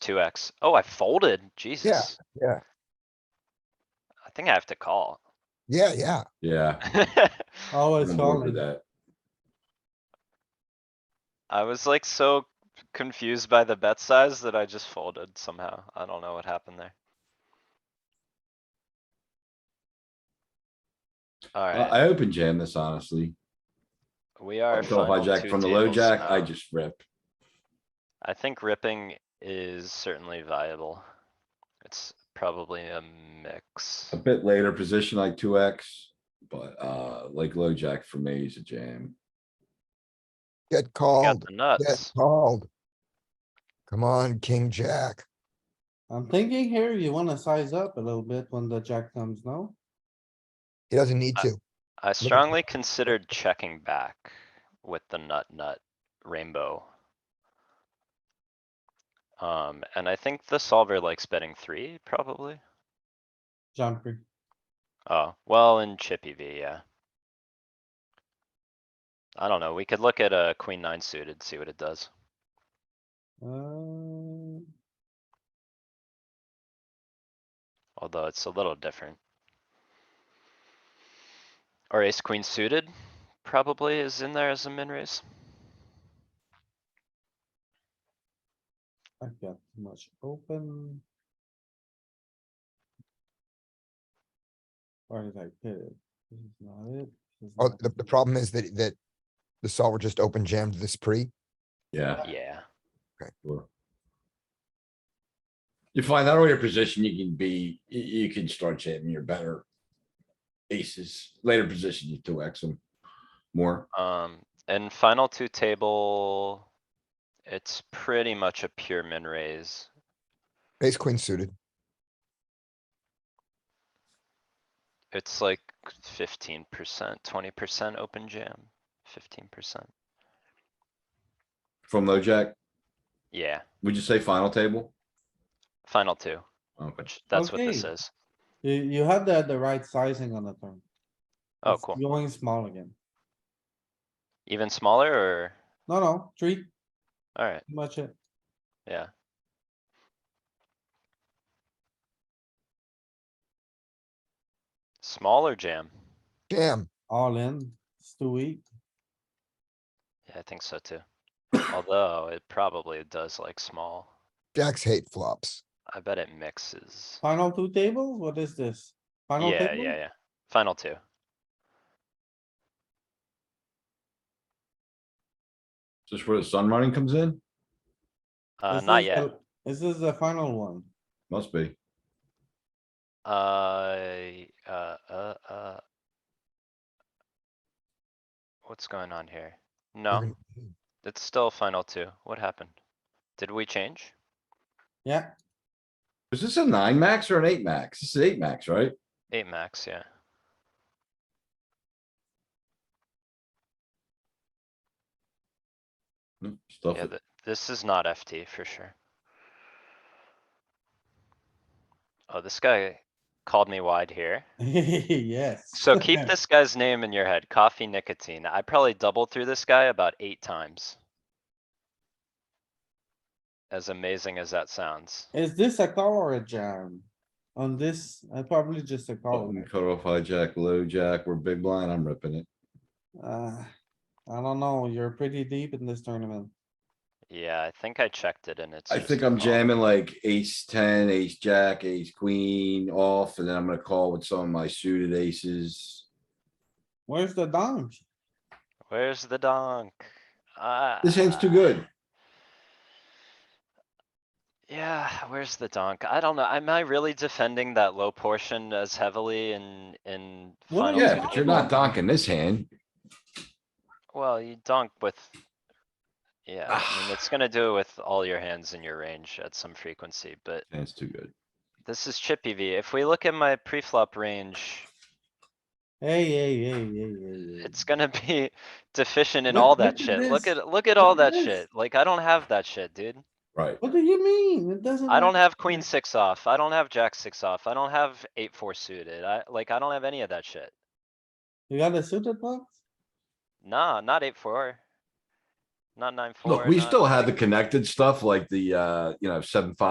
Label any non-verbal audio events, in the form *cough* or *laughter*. two X. Oh, I folded. Jesus. yeah. I think I have to call. *laughs* Yeah, yeah. Yeah, Oh, Always remember solid. that. I was like so confused by the bet size that I just folded somehow. I don't know what happened there. I, Alright, I open jam this honestly. we are. So if I final jack two uh, from the low tables jack, I now. just rip. I think ripping is certainly viable. It's probably a mix. A bit later position like two X, but uh, like low jack for me is a jam. Get Got called, the get nuts. called. Come on, king, jack. I'm thinking here, you wanna size up a little bit when the jack comes, no? He doesn't need Uh, to. I strongly considered checking back with the nut nut rainbow. Um, and I think the solver likes betting three, probably. Jumper. Oh, well, in chippy V, yeah. I don't know, we could look at a queen nine suited, see what it does. Uh, Although it's a little different. Or ace queen suited probably is in there as a min raise. I've got too much open. Where did I put it? This is not it. This is Oh, not the, the it. problem is that, that the solver just open jammed this pre. Yeah, Yeah, sure. You find out where your position, you can be, you, you can start jamming your better aces. Later position, you two X them more. um, and final two table. It's pretty much a pure min raise. Ace queen suited. It's like fifteen percent, twenty percent open jam, fifteen percent. From low jack, Yeah, would you say final table? final two, Okay. which that's what this Okay. is. You, you had the, the right sizing on the turn. Oh, It's cool. Going small again. Even smaller or, No, no, three, too alright, much uh, it. yeah. Smaller jam. Jam. All in, it's too weak. Yeah, I think so too. Although it probably does like small. Jacks hate flops. I bet it mixes. Final two tables, what is this? Final Yeah, yeah, table? yeah. Final two. Just where the sun running comes in? Uh, This not is yet. the- This is the final one. Must be. Uh, uh, uh, uh. What's going on here? You're No, gonna- it's still final two. What happened? Did we change? Yeah, Is this a nine max or an eight max? This is eight max, right? Eight max, yeah. Hmm, Oh, Stuff Yeah, it. th- this is not FT for sure. Oh, this guy called me wide here. *laughs* yes. *laughs* So keep this guy's name in your head, coffee nicotine. I probably doubled through this guy about eight times. As amazing as that sounds. *laughs* Is this a call or a jam? On this, I probably just a call. Button, Cut off hijack, low jack, we're big blind, I'm ripping it. Uh, I don't know, you're pretty deep in this tournament. Yeah, I think I checked it and it's. I just think a I'm call. jamming like ace ten, ace jack, ace queen off, and then I'm gonna call with some of my suited aces. Where's the dunk? Where's the donk? This hand's too Ah, good. Yeah, where's the donk? I don't know. Am I really defending that low portion as heavily in, in? What are final you Yeah, two? but you're not donking this hand. Well, you dunk with. Yeah, I mean, *sighs* it's gonna do it with all your hands in your range at some frequency, but Hand's too good. this is chippy V. If we look at my pre-flop range, Hey, hey, hey, hey, hey, hey. it's gonna *laughs* be deficient in Look- all look that at shit. Look this. at, look at Look all at that this. shit. Like, I don't have that shit, dude. Right, What do you mean? It doesn't. I don't matter. have queen six off. I don't have jack six off. I don't have eight four suited. I like I don't have any of that shit. You got a suited box? Nah, not eight four. Not nine four. look, we not- still had the connected stuff like the, uh, you know, seven, five.